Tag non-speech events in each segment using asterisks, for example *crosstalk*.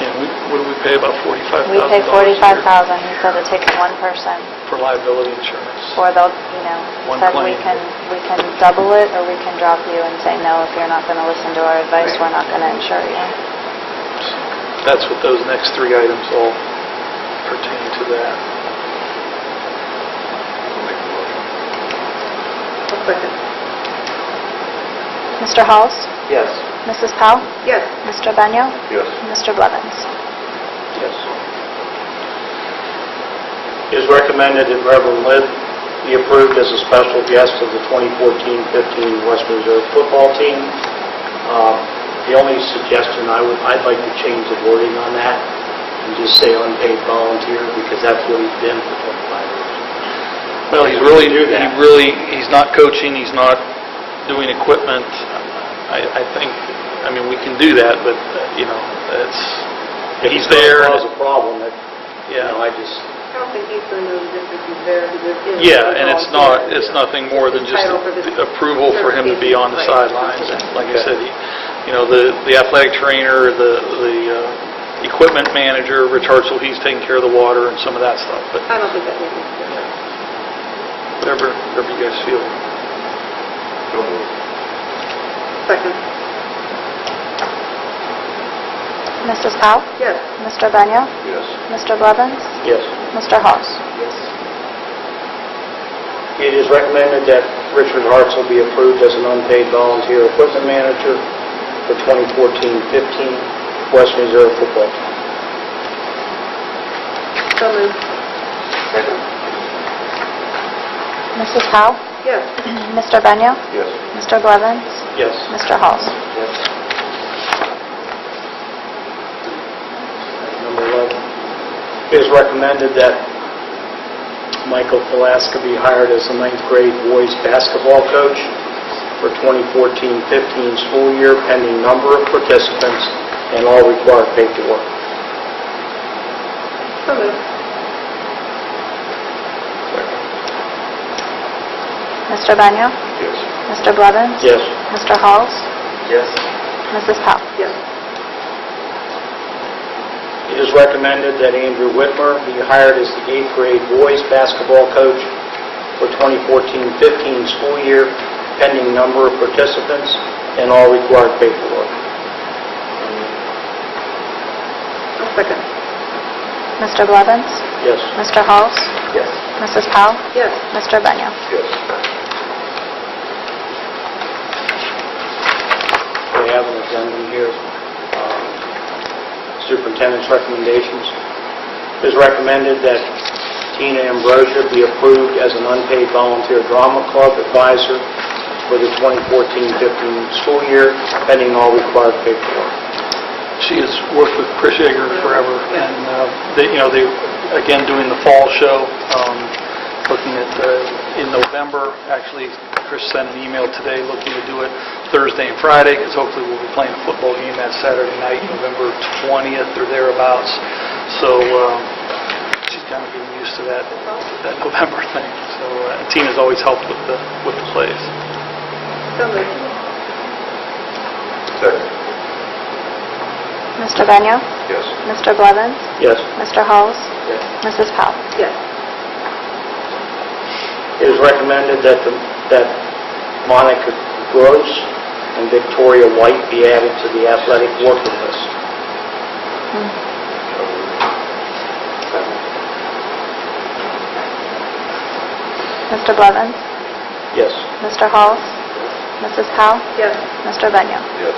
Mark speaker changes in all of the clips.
Speaker 1: Yeah, we, what do we pay, about $45,000?
Speaker 2: We pay
Speaker 1: a year
Speaker 2: 45,000, he said to take one person,
Speaker 1: For liability insurance.
Speaker 2: or they'll, you know,
Speaker 1: One
Speaker 2: said we
Speaker 1: claim.
Speaker 2: can, we can double it, or we can drop you and say, no, if you're not going to listen to our advice, we're not going to insure you.
Speaker 1: That's what those next three items all pertain to that.
Speaker 2: Mr. Halls?
Speaker 3: Yes.
Speaker 2: Mrs. Powell?
Speaker 4: Yes.
Speaker 2: Mr. Benio?
Speaker 3: Yes.
Speaker 2: Mr. Blevins?
Speaker 3: Yes. It is recommended that Reverend Lynn be approved as a special guest of the 2014-15 West Reserve football team. Um, The only suggestion I would, I'd like to change the wording on that and just say unpaid volunteer because that's what he's been for 25 years.
Speaker 1: Well, he's really,
Speaker 3: Do
Speaker 1: he
Speaker 3: that.
Speaker 1: really, he's not coaching, he's not doing equipment. I, I think, I mean, we can do that, but, uh, you know, it's, he's there.
Speaker 3: If it causes a problem, that, you know,
Speaker 1: Yeah,
Speaker 3: I just,
Speaker 4: I don't think he's going to move this if he's there. because it is-
Speaker 1: yeah, and it's not,
Speaker 4: all-
Speaker 1: it's nothing more than just
Speaker 4: Title for this-
Speaker 1: approval for him to be on the
Speaker 4: Right.
Speaker 1: sidelines. And Like I said, he- you know, the the athletic trainer, the, the uh, equipment manager, Rich Hartzell, he's taking care of the water and some of that stuff, but
Speaker 4: I don't think that makes sense.
Speaker 1: whatever, whatever you guys feel.
Speaker 4: Second.
Speaker 2: Mrs. Powell?
Speaker 4: Yes.
Speaker 2: Mr. Benio?
Speaker 3: yes.
Speaker 2: Mr. Blevins?
Speaker 3: Yes.
Speaker 2: Mr. Halls?
Speaker 3: It is recommended that Richard Hartzell be approved as an unpaid volunteer equipment manager for 2014-15 West Reserve Football Team.
Speaker 4: So moved. Second.
Speaker 2: Mrs. Powell? *clears throat*
Speaker 4: Yes.
Speaker 2: Mr. Benio?
Speaker 3: Yes.
Speaker 2: Mr. Blevins?
Speaker 3: Yes.
Speaker 2: Mr. Halls?
Speaker 3: Number 11, it is recommended that Michael Palaska be hired as the ninth grade boys basketball coach for 2014-15 school year pending number of participants and all required paperwork.
Speaker 4: So moved.
Speaker 2: Mr. Benio?
Speaker 3: Yes.
Speaker 2: Mr. Blevins?
Speaker 3: Yes.
Speaker 2: Mr. Halls?
Speaker 3: Yes.
Speaker 2: Mrs. Powell?
Speaker 4: Yes.
Speaker 3: It is recommended that Andrew Whitmer be hired as the eighth grade boys basketball coach for 2014-15 school year pending number of participants and all required paperwork.
Speaker 4: So Second.
Speaker 2: Mr. Blevins?
Speaker 3: Yes.
Speaker 2: Mr. Halls?
Speaker 3: Yes.
Speaker 2: Mrs. Powell?
Speaker 4: Yes.
Speaker 2: Mr. Benio?
Speaker 3: We have an addendum here, um, superintendent's recommendations. It is recommended that Tina Ambrosia be approved as an unpaid volunteer drama club advisor for the 2014-15 school year, pending all required paperwork.
Speaker 1: She has worked with Chris Yeager forever, and, uh, they, you know, they, again, doing the fall show, um, looking at, uh, in November, actually, Chris sent an email today looking to do it Thursday and Friday, because hopefully we'll be playing a football game that Saturday night, November 20th or thereabouts. So um, she's kind of getting used to that, that *laughs* November thing. So uh, Tina's always helped with the, with the plays.
Speaker 4: So moved.
Speaker 2: Mr. Benio?
Speaker 3: Yes.
Speaker 2: Mr. Blevins?
Speaker 3: Yes.
Speaker 2: Mr. Halls?
Speaker 3: Yes.
Speaker 2: Mrs. Powell?
Speaker 4: Yes.
Speaker 3: It is recommended that the- that Monica Gross and Victoria White be added to the athletic working list.
Speaker 2: Mr. Blevins?
Speaker 3: Yes.
Speaker 2: Mr. Halls? Mrs. Powell?
Speaker 4: Yes.
Speaker 2: Mr. Benio?
Speaker 3: Yes.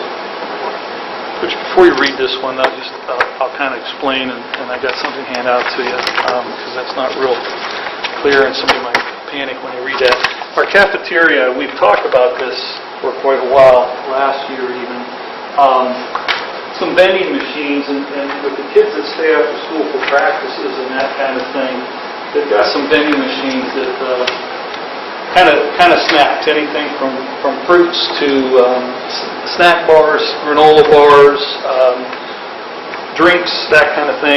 Speaker 1: Which, before you read this one, I'll just, I'll- I'll kind of explain, and and I got something handed out to you, because that's not real clear, and somebody might panic when they read that. Our cafeteria, we've talked about this for quite a while, last year even, um, some vending machines, and and with the kids that stay after school for practices and that kind of thing, they've got some vending machines that uh, kind of, kind of snacks, anything from, from fruits to um, s- snack bars, granola bars, um, drinks, that kind of thing.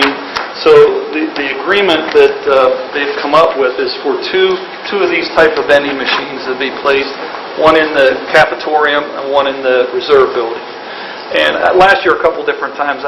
Speaker 1: So the, the agreement that uh, they've come up with is for two, two of these type of vending machines to be placed, one in the cafetorium and one in the reserve building. And uh, last year, a couple different times,